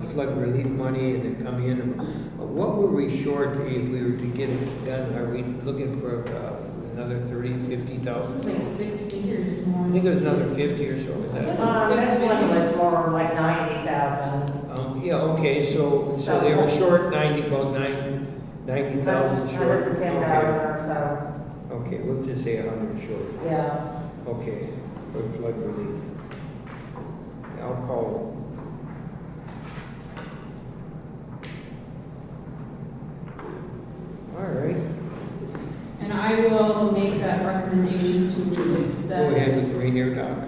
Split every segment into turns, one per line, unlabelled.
flood relief money and it come in. What were we short if we were to get it done? Are we looking for uh, another thirty, fifty thousand?
It's like six figures more.
I think it was another fifty or so, is that?
Um, this one was more like ninety thousand.
Um, yeah, okay, so, so they were short ninety, about nine, ninety thousand short.
Hundred and ten
Okay.
thousand or so,
Okay, we'll just say a hundred short.
yeah.
Okay, for flood relief. I'll call. All right,
And I will make that recommendation to
go ahead
accept
with the reindeer doc.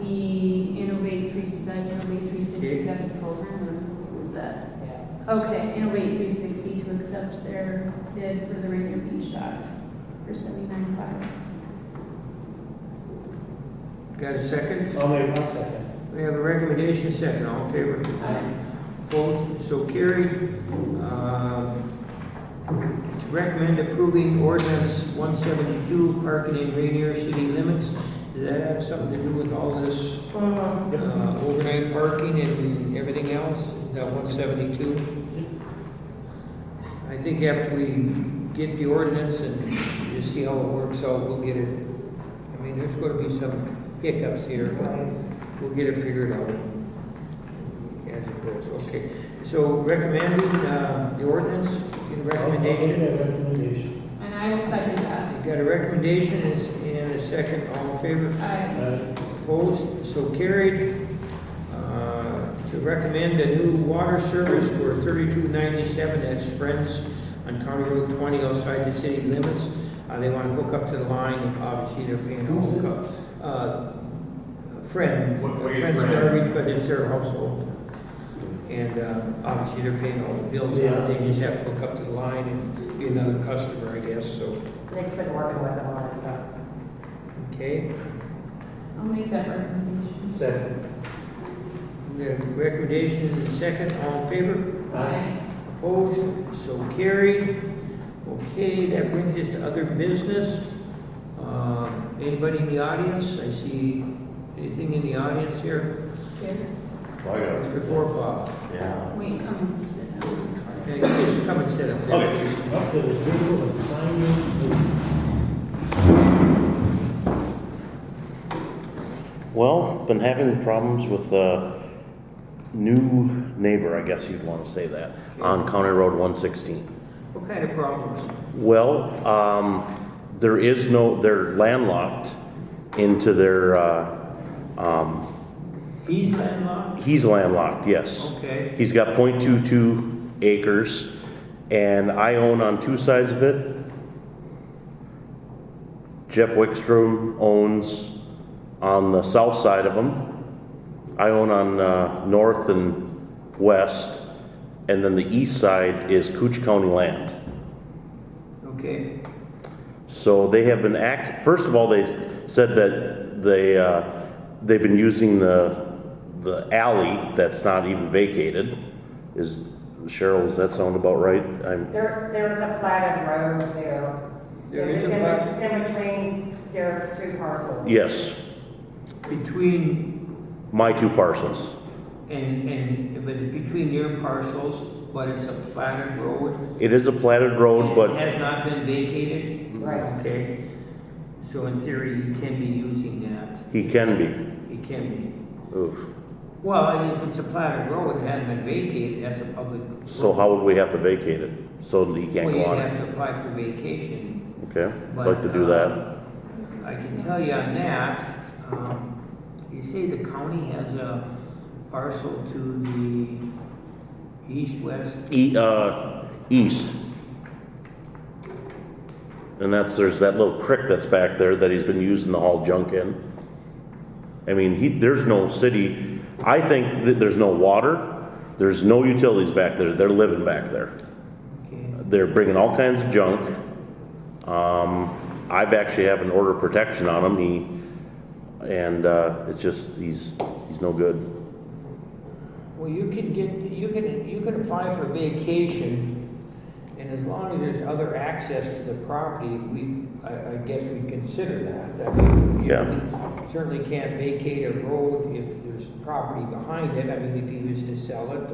the Innovate three, is that Innovate three sixty, that is program, or what was that?
yeah.
Okay, Innovate three sixty to accept their bid for the Rainier Beach dock for seventy-nine five.
Got a second?
Only one second.
We have a recommendation second, all in favor? Opposed, so carried. Uh, To recommend approving ordinance 172, parking in Rainier city limits. Does that have something to do with all this
Mhm.
uh, overnight parking and everything else? Is that 172? I think after we get the ordinance and just see how it works out, we'll get it. I mean, there's going to be some hiccups here, but We'll get it figured out as it goes, okay. So recommending uh, the ordinance, get a recommendation.
I'll make that recommendation.
And I will second that.
Got a recommendation and s- and a second, all in favor,
Aye.
Uh,
opposed, so carried. Uh, To recommend a new water service for 3297 at Friends on County Road 20 outside the city limits. Uh, They want to hook up to the line, obviously they're paying a
Who's this?
hookup. Uh, Friend,
What- what are you
Friends
friend?
Garbage, but it's their household. And uh, obviously, they're paying all the bills,
Yeah.
they just have to hook up to the line and be another customer, I guess, so,
Nick's been working with them on it, so.
okay.
I'll make that recommendation.
Second.
The recommendation is in second, all in favor?
uh,
Aye.
Opposed? So carried. Okay, that brings us to other business. Uh, Anybody in the audience? I see anything in the audience here?
Here.
Mr. Forbaugh,
Yeah.
Wait, come and sit down.
Okay, just come and sit up there.
Okay.
please.
Up to the table and sign it.
Well, been having problems with a new neighbor, I guess you'd want to say that, on County Road 116.
What kind of problems?
Well, um, there is no, they're landlocked into their, uh, um,
He's landlocked?
he's landlocked, yes.
Okay.
He's got .22 acres, and I own on two sides of it. Jeff Wickstrom owns on the south side of him. I own on uh, north and west, and then the east side is Cooch County land.
Okay,
So they have been act, first of all, they said that they, uh, they've been using the, the alley that's not even vacated. Is, Cheryl, does that sound about right? I'm,
There, there's a platted road there.
There is a
In- in
plat-
bet- In between Derek's two parcels.
yes,
between,
my two parcels.
and, and, but it's between your parcels, but it's a platted road?
It is a platted road,
It
but
has not been vacated?
Right.
Okay, so in theory, you can be using that,
he can be.
it can be.
Oof.
Well, if it's a platted road, it hasn't been vacated, that's a public. road.
So how would we have to vacate it? So that he can't
Well,
go
you'd
on it?
have to apply for vacation.
Okay, I'd
but,
like to do that.
uh, I can tell you on that, um, you say the county has a parcel to the east-west
E, uh, east. And that's, there's that little creek that's back there that he's been using to haul junk in. I mean, he, there's no city, I think that there's no water, there's no utilities back there, they're living back there.
Okay,
They're bringing all kinds of junk. Um, I've actually have an order of protection on him, he, and, uh, it's just, he's, he's no good.
well, you can get, you can, you can apply for vacation, and as long as there's other access to the property, we, I, I guess we consider that. I mean, you
Yeah.
know, Certainly can't vacate a road if there's property behind it, I mean, if he was to sell it